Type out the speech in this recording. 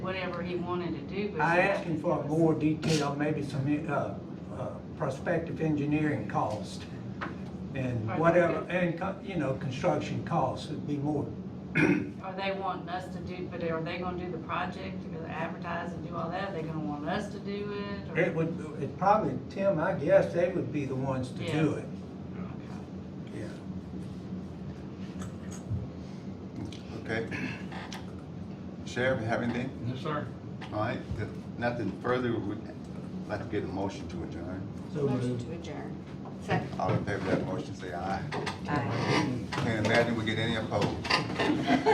whatever he wanted to do. but- I asked him for more detail, maybe some, uh, uh, prospective engineering cost. And Right. whatever, and, co- you know, construction costs would be more. Are they wanting us to do, but are they gonna do the project, or advertise and do all that? Are they gonna want us to do it? or- It would, it probably, Tim, I guess they would be the ones to do Yeah. it. Okay. Yeah. Okay. Sheriff, you have anything? Yes, sir. All right, if nothing further, we'd like to get a motion to adjourn. So Motion moved. to adjourn. Second. All in favor of that motion, say aye. Aye. Can't imagine we get any opposed.